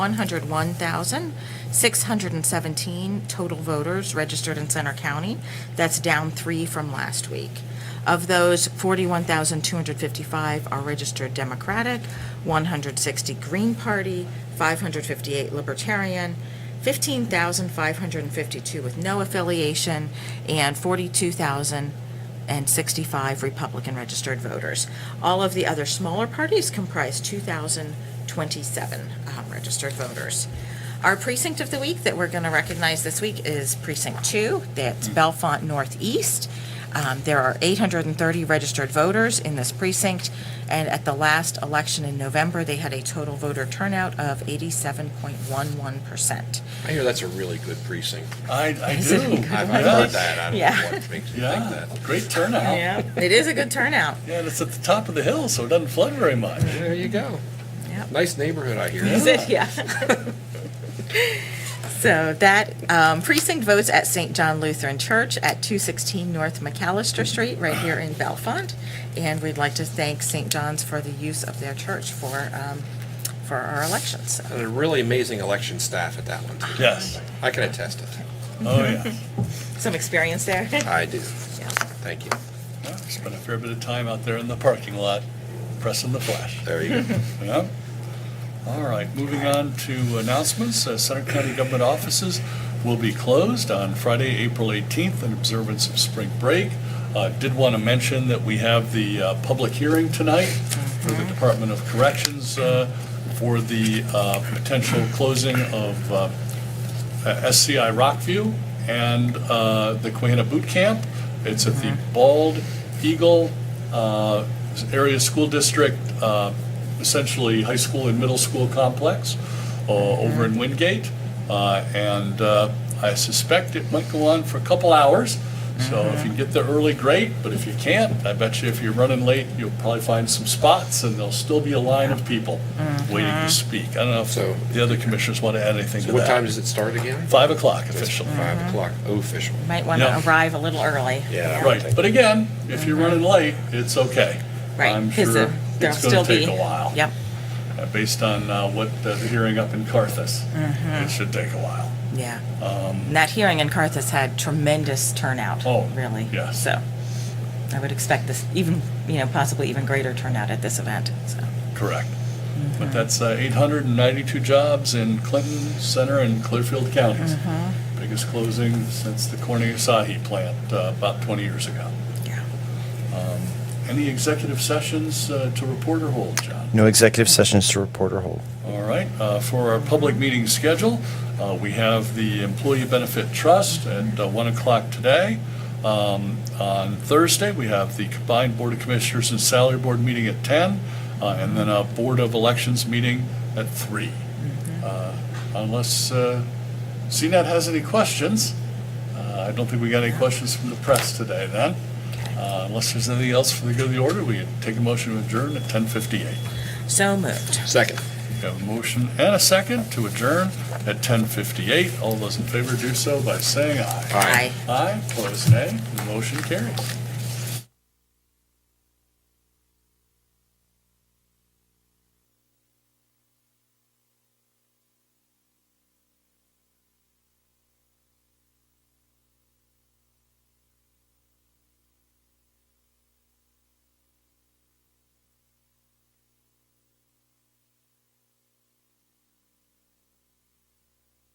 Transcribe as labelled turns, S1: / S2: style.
S1: 101,617 total voters registered in Center County. That's down three from last week. Of those, 41,255 are registered Democratic, 160 Green Party, 558 Libertarian, 15,552 with no affiliation, and 42,065 Republican registered voters. All of the other smaller parties comprise 2,027 um, registered voters. Our precinct of the week that we're going to recognize this week is Precinct 2. That's Bellefonte Northeast. Um, There are 830 registered voters in this precinct, and at the last election in November, they had a total voter turnout of 87.11%.
S2: I hear that's a really good precinct.
S3: I, I
S1: Is
S3: do.
S1: it a good
S2: I've I've
S3: Yeah.
S2: heard that. I
S1: Yeah.
S2: don't know what makes you think
S3: Yeah,
S2: that.
S3: great turnout. Yeah,
S1: It is a good turnout.
S3: and it's at the top of the hill, so it doesn't flood very much.
S2: There you go.
S1: Yep.
S2: Nice neighborhood, I hear.
S3: Yeah.
S1: Yeah. So that um, precinct votes at St. John Lutheran Church at 216 North McAllister Street, right here in Bellefonte. And we'd like to thank St. John's for the use of their church for, um, for our elections. So,
S2: And a really amazing election staff at that one, too.
S3: Yes,
S2: I can attest to that.
S3: oh, yeah.
S1: Some experience there.
S2: I do.
S1: Yeah.
S2: Thank you.
S3: Yeah, Spent a fair bit of time out there in the parking lot pressing the flash.
S2: There you go.
S3: Yeah. All right, moving on to announcements. Uh, Center County Government offices will be closed on Friday, April 18th in observance of spring break. Uh, Did want to mention that we have the uh, public hearing tonight for the Department of Corrections uh, for the uh, potential closing of uh, uh, SCI Rockview and uh, the Quahana Boot Camp. It's at the Bald Eagle uh, Area School District, uh, essentially high school and middle school complex uh, over in Wingate. Uh, And uh, I suspect it might go on for a couple hours. So if you can get there early, great, but if you can't, I bet you if you're running late, you'll probably find some spots and there'll still be a line of people waiting to speak. I don't know if
S2: So-
S3: the other commissioners want to add anything to
S2: So
S3: that.
S2: what time does it start again?
S3: Five o'clock official.
S1: Mm-hmm.
S2: Five o'clock official.
S1: Might want to
S3: Yeah.
S1: arrive a little early.
S2: Yeah.
S3: Right, but again, if you're running late, it's okay.
S1: Right,
S3: I'm
S1: 'cause
S3: sure
S1: there- there'll
S3: it's gonna
S1: still
S3: take
S1: be-
S3: a while.
S1: Yep,
S3: uh, Based on uh, what uh, the hearing up in Carthus,
S1: Mm-hmm.
S3: it should take a while.
S1: yeah. And That hearing in Carthus had tremendous turnout,
S3: Um, Oh,
S1: really.
S3: yeah.
S1: So I would expect this even, you know, possibly even greater turnout at this event, so.
S3: Correct.
S1: Mm-hmm.
S3: But that's uh, 892 jobs in Clinton Center and Clearfield counties.
S1: Mm-hmm.
S3: Biggest closing since the Corning Asahi plant uh, about 20 years ago.
S1: Yeah.
S3: Any executive sessions uh, to report or hold, John?
S4: No executive sessions to report or hold.
S3: All right, uh, for our public meeting schedule, uh, we have the Employee Benefit Trust at uh, 1 o'clock today. Um, On Thursday, we have the combined Board of Commissioners and Salary Board meeting at 10, uh, and then a Board of Elections meeting at 3. Uh, Unless uh, CNET has any questions, uh, I don't think we got any questions from the press today then. Uh, Unless there's anything else for the good of the order, we take a motion to adjourn at 10:58.
S1: So moved.
S2: Second.
S3: We have a motion and a second to adjourn at 10:58. All those in favor do so by saying aye.
S2: Aye.
S3: Aye, opposed nay, the motion carries.